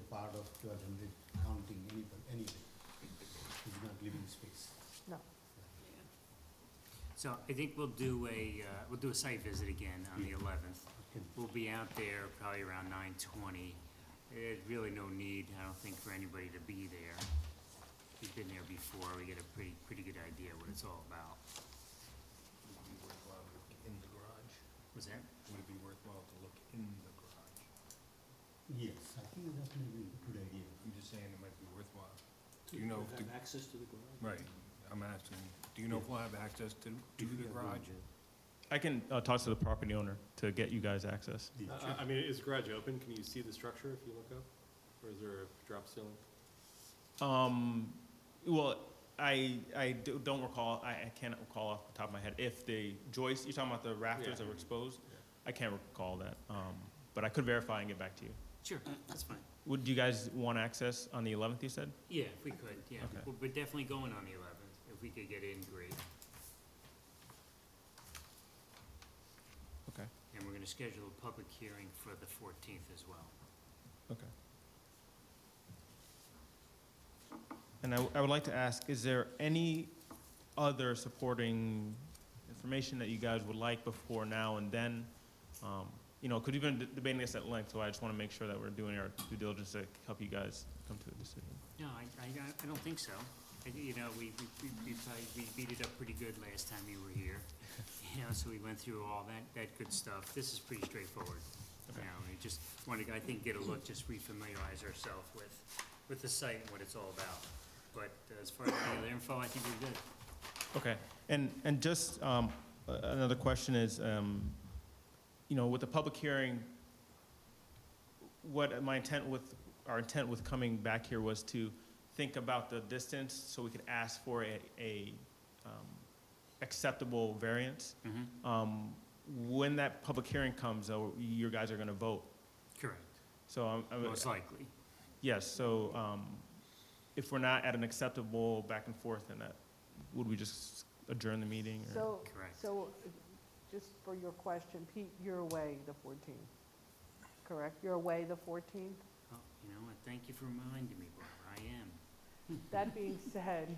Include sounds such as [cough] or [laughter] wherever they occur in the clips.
of twelve hundred counting any, anything. It's not living space. No. So I think we'll do a, uh, we'll do a site visit again on the eleventh. Okay. We'll be out there probably around nine twenty. There's really no need, I don't think, for anybody to be there. We've been there before, we get a pretty, pretty good idea what it's all about. Would it be worthwhile to look in the garage? Was that? Would it be worthwhile to look in the garage? Yes, I think that may be a good idea. I'm just saying it might be worthwhile. Do you know if the, access to the garage? right, I'm asking, do you know if we'll have access to, to If you the have garage? room, I can uh, talk to the property owner to get you guys access. Uh, yeah. Uh, I- I, I mean, is the garage open? Can you see the structure if you look up? Or is there a drop ceiling? Um, well, I, I do- don't recall, I, I cannot recall off the top of my head if the joists, you're talking about the rafters that were exposed? Yeah. I can't recall that, um, but I could verify and get back to you. Sure, Uh, that's fine. Would, do you guys want access on the eleventh, you said? Yeah, if we could, yeah. Okay. We're- We're definitely going on the eleventh, if we could get in, great. Okay. And we're gonna schedule a public hearing for the fourteenth as well. Okay. And I, w- I would like to ask, is there any other supporting information that you guys would like before now and then? Um, You know, could you've been d- debating this at length, so I just want to make sure that we're doing our due diligence to help you guys come to a decision. No, I, I, I don't think so. I, thi- you know, we, we, we, we probably, we beat it up pretty good last time you were here. You know, so we went through all that, that good stuff. This is pretty straightforward. You Okay. know, we just wanted, to, I think, get a look, just refamiliarize ourselves with, with the site and what it's all about. But as far as any other info, I think we're good. Okay, and, and just, um, a- another question is, um, you know, with the public hearing, what my intent with, our intent with coming back here was to think about the distance so we could ask for a, a, um, acceptable variance. Mm-hmm. Um, when that public hearing comes, though, you guys are gonna vote. Correct, So I'm, I'm, most likely. yes, so, um, if we're not at an acceptable back and forth, then that, would we just adjourn the meeting or? So, Correct. so, uh, just for your question, Pete, you're away the 14th, correct? You're away the 14th? Oh, You know what, thank you for reminding me, Barbara, I am. That being said,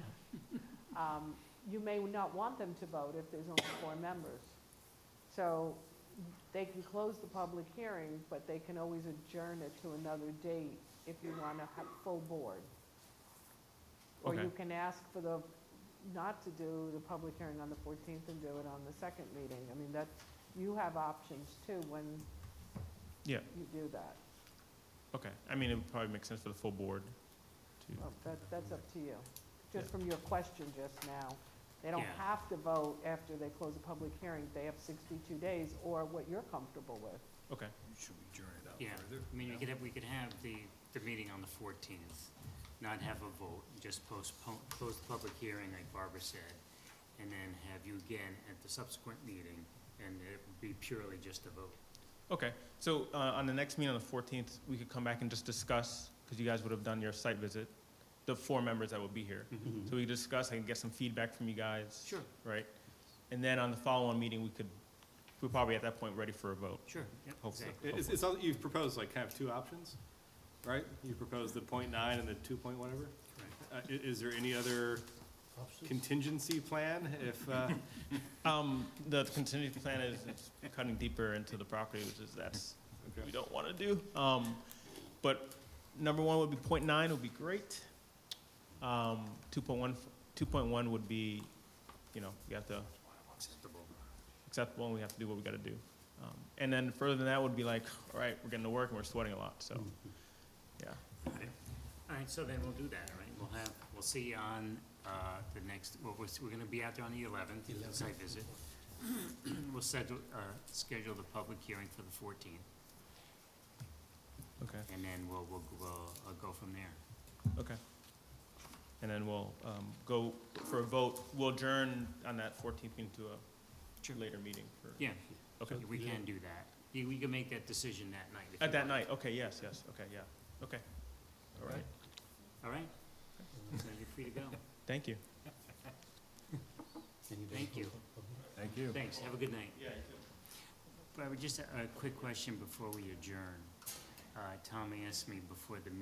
um, you may not want them to vote if there's only four members. So they can close the public hearing, but they can always adjourn it to another date if you want to have full board. Or you Okay. can ask for the, not to do the public hearing on the 14th and do it on the second meeting. I mean, that's, you have options too when Yeah. you do that. Okay, I mean, it would probably make sense for the full board to, Well, that, that's up to you. Just Yeah. from your question just now, they don't Yeah. have to vote after they close a public hearing. They have sixty-two days or what you're comfortable with. okay, Should we adjourn it out Yeah, further? I mean, we No? could have, we could have the, the meeting on the fourteenth, not have a vote, just postpone, close the public hearing like Barbara said, and then have you again at the subsequent meeting, and it would be purely just a vote. okay. So, uh, on the next meeting on the fourteenth, we could come back and just discuss, because you guys would have done your site visit, the four members that will be here. Mm-hmm. So we discuss, I can get some feedback from you guys. Sure. Right? And then on the following meeting, we could, we're probably at that point ready for a vote. Sure, yep, Hopefully. exactly. It- It's, it's, all- you've proposed like kind of two options, right? You proposed the point nine and the two point whatever. Correct. Uh, i- is there any other contingency plan if, uh, Um, the contingency plan is is cutting deeper into the property, which is, that's, we okay. don't want to do. Um, but number one would be point nine would be great. Um, 2.1, 2.1 would be, you know, we have to Acceptable. acceptable and we have to do what we got to do. Um, and then further than that would be like, all right, we're getting to work and we're sweating a lot. So, yeah. All right, so then we'll do that, all right? We'll have, we'll see you on, uh, the next, well, we're, we're gonna be out there on the eleventh, site visit. [clears throat] We'll schedule, uh, schedule the public hearing for the fourteenth, Okay. and then we'll, we'll, we'll, uh go from there. Okay. And then we'll um, go for a vote. We'll adjourn on that 14th meeting to a later meeting. For, Yeah, Okay. we can do that. You- We can make that decision that night. if At you that want. night. Okay. Yes. Yes. Okay. Yeah. Okay. All right. All right? So you're free to go. [laughs] Thank you. Anybody Thank from you. the public? Thank you. Thanks, have a good night. Yeah. Barbara, just a a quick question before we adjourn. Uh, Tom asked me before the